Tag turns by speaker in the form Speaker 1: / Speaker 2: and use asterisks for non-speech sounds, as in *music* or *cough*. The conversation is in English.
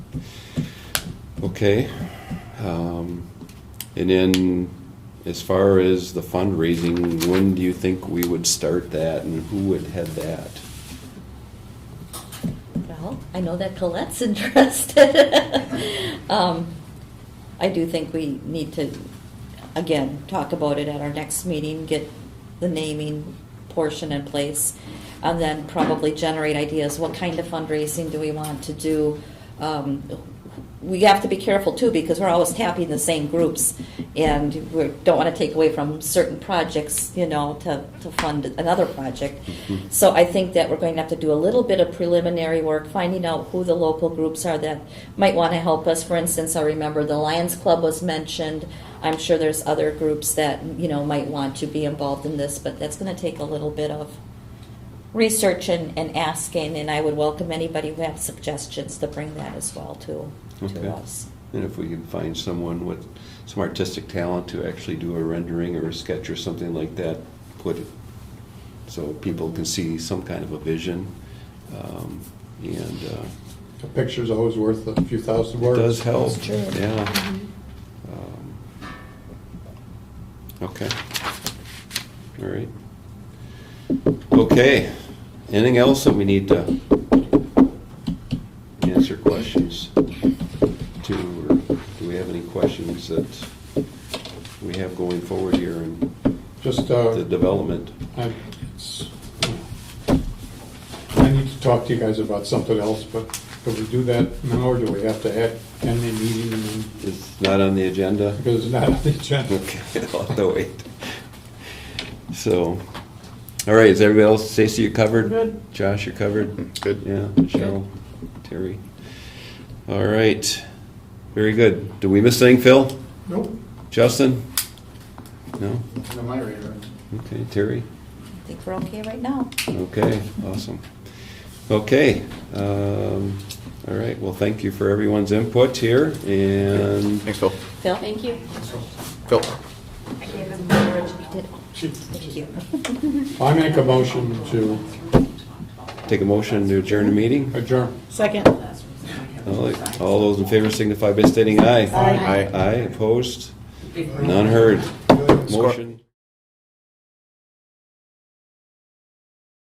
Speaker 1: Okay. Um, And then, as far as the fundraising, when do you think we would start that and who would head that?
Speaker 2: Well, I know that Colette's *laughs* interested. Um, I do think we need to, again, talk about it at our next meeting, get the naming portion in place, and then probably generate ideas, what kind of fundraising do we want to do? Um, We have to be careful too, because we're always tapping the same groups, and we don't want to take away from certain projects, you know, to, to fund another project.
Speaker 1: Mhm.
Speaker 2: So I think that we're going to have to do a little bit of preliminary work, finding out who the local groups are that might want to help us. For instance, I remember the Lions Club was mentioned. I'm sure there's other groups that, you know, might want to be involved in this, but that's going to take a little bit of research and, and asking, and I would welcome anybody who has suggestions to bring that as well to,
Speaker 1: Okay.
Speaker 2: to us.
Speaker 1: And if we can find someone with some artistic talent to actually do a rendering or a sketch or something like that, put it, so people can see some kind of a vision. Um, And uh,
Speaker 3: A picture's always worth a few thousand
Speaker 1: it
Speaker 3: words.
Speaker 1: does help,
Speaker 2: It's true. Mm-hmm.
Speaker 1: yeah. Um, Okay. All right. Okay, anything else that we need to answer questions to, or do we have any questions that we have going forward here in
Speaker 3: Just,
Speaker 1: the
Speaker 3: uh,
Speaker 1: development?
Speaker 3: I, it's, I need to talk to you guys about something else, but do we do that now, or do we have to have, end the meeting and then,
Speaker 1: It's not on the agenda?
Speaker 3: because it's not on the agenda?
Speaker 1: Okay, *laughs* I'll have to wait. So, all right, is everybody else, Stacy, you covered? Good. Josh, you covered? Good. Yeah, Cheryl, Terry. All right, very good. Did we miss anything, Phil?
Speaker 3: Nope.
Speaker 1: Justin? No?
Speaker 3: On my radar.
Speaker 1: Okay, Terry?
Speaker 2: I think we're okay right now.
Speaker 1: Okay, awesome. Okay, um, all right, well, thank you for everyone's input here, and
Speaker 4: Thanks, Phil.
Speaker 2: Phil?
Speaker 5: Thank you.
Speaker 4: Phil?
Speaker 5: I gave him the original.
Speaker 2: Did- Thank you.
Speaker 3: I make a motion to
Speaker 1: take a motion to adjourn the meeting.
Speaker 3: adjourn.
Speaker 5: Second.
Speaker 1: All right, all those in favor signify by stating aye.
Speaker 5: Aye.
Speaker 1: Aye, opposed? None heard. Motion.